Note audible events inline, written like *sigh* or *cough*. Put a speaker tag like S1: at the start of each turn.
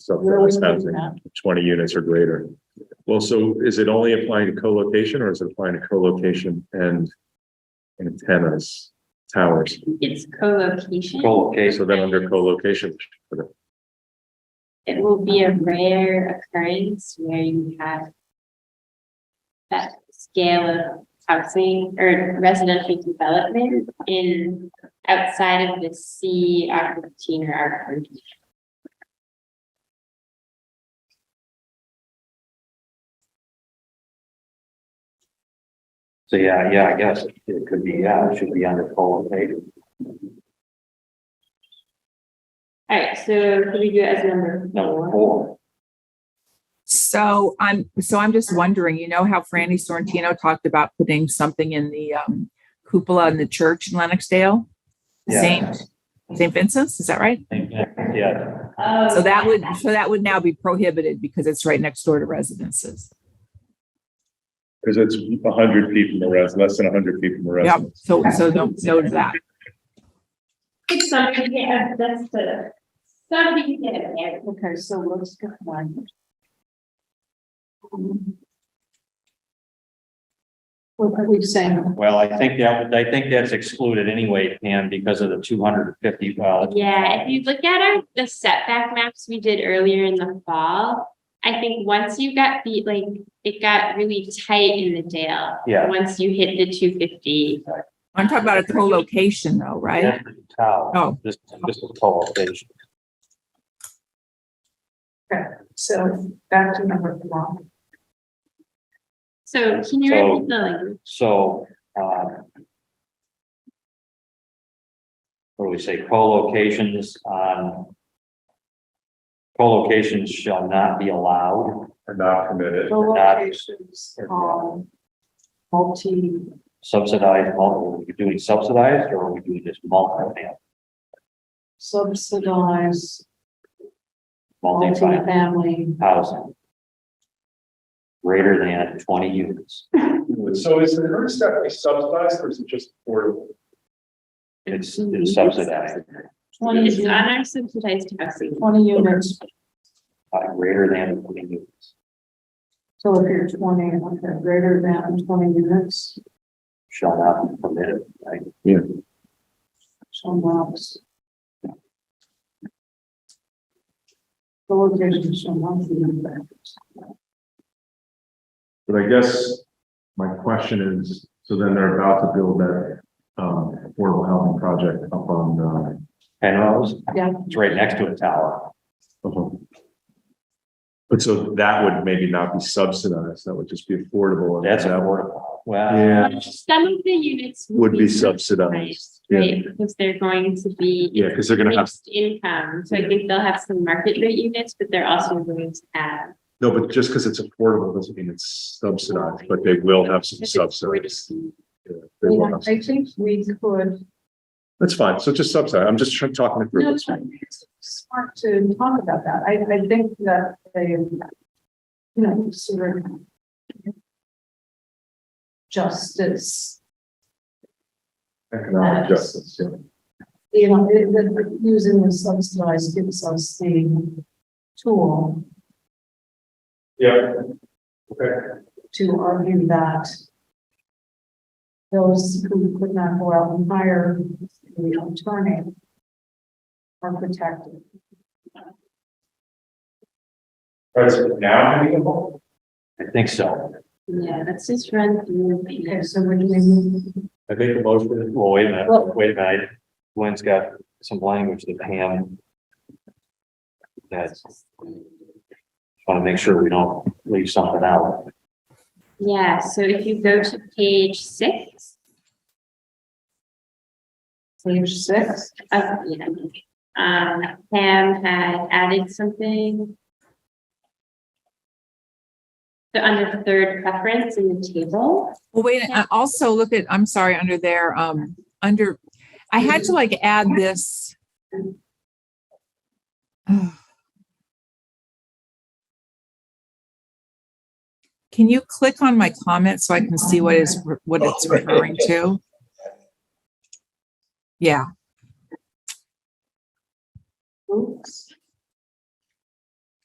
S1: subsidized
S2: Where are we doing
S1: housing, twenty units or greater. Well, so is it only applying to co-location or is it applying to co-location and antennas, towers?
S3: It's co-location.
S1: So then under co-location,
S3: It will be a rare occurrence where you have that scale of housing or residential development in outside of the C R fifteen or R twenty.
S4: So yeah, yeah, I guess it could be, yeah, it should be under co-located.
S3: All right, so could we do it as number four?
S4: Number four,
S2: So I'm, so I'm just wondering, you know how Franny Sorrentino talked about putting something in the um cupola in the church in Lenoxdale?
S4: Yeah.
S2: Saint, Saint Vincent's, is that right?
S4: yeah,
S3: Oh.
S2: So that would, so that would now be prohibited because it's right next door to residences.
S1: because it's hundred feet from the res, less than hundred feet from the
S2: Yep,
S1: residence.
S2: so, so don't note that.
S3: It's something, yeah, that's the, somebody get it there, okay, so let's go one. Mm-hmm.
S5: What are we saying?
S4: well, I think that, I think that's excluded anyway, Pam, because of the two hundred and fifty, well.
S3: Yeah, if you look at our, the setback maps we did earlier in the fall, I think once you got the, like, it got really tight in the Dale.
S4: Yeah.
S3: Once you hit the two fifty.
S2: I'm talking about a co-location though, right?
S4: that's the Tower.
S2: Oh.
S4: This, this is co-location.
S5: So back to number one.
S3: So can you
S4: So-
S3: repeat the language?
S4: So, um. What do we say, co-locations on. Co-locations shall not be allowed,
S1: Are not permitted.
S5: Co-locations on multi,
S4: subsidized, multiple, are we doing subsidized or are we doing this multi-family?
S5: subsidized,
S4: Multi-family
S5: multi-family.
S4: housing. Greater than twenty units,
S1: So is the first step subsidized or is it just affordable?
S4: it's it's subsidized,
S3: It's
S5: units.
S3: on our subsidized housing.
S5: Twenty units,
S4: uh, greater than twenty units,
S5: so if you're twenty, okay, greater than twenty units,
S4: shall not be permitted, right?
S5: some lots. Co-locations on multi-units.
S1: But I guess my question is, so then they're about to build that um affordable housing project up on
S4: Penrose,
S5: Yeah,
S4: it's right next to a tower.
S1: uh. But so that would maybe not be subsidized, that would just be affordable. and
S4: That's
S1: that would-
S4: affordable. Well,
S1: Yeah,
S3: Some of the units.
S1: would be subsidized.
S3: subsidized, Right, because they're going to be.
S1: Yeah, because they're gonna have,
S3: Mixed income, so I think they'll have some market rate units, but they're also going to have.
S1: no, but just because it's affordable doesn't mean it's subsidized, but they will have some subsidies. Yeah, they will have-
S5: I think we could
S1: That's fine, so just subsidize, I'm just trying- talking it through.
S5: No,
S1: That's fine.
S5: it's Smart to talk about that. I, I think that they, you know, consider justice,
S1: Economic justice, yeah.
S5: you know, it- that using the subsidized gives us the tool
S1: Yeah, okay.
S5: to argue that those who could not go out and hire the attorney are protected.
S1: Right, so now having a home?
S4: I think so.
S3: Yeah, let's just run through.
S5: Okay, so we're doing,
S4: I think the motion. Well, wait a minute, wait a minute. Gwen's got some language that Pam. That's. Want to make sure we don't leave something out.
S3: Yeah, so if you go to page six
S5: page six.
S3: of, yeah, um, Pam had added something. So under third preference in the table,
S2: Well, wait,
S3: Yeah.
S2: I also look at, I'm sorry, under there, um, under, I had to like add this. *sighs* Ugh. Can you click on my comment so I can see what is, what it's referring to? Yeah,
S5: Oops.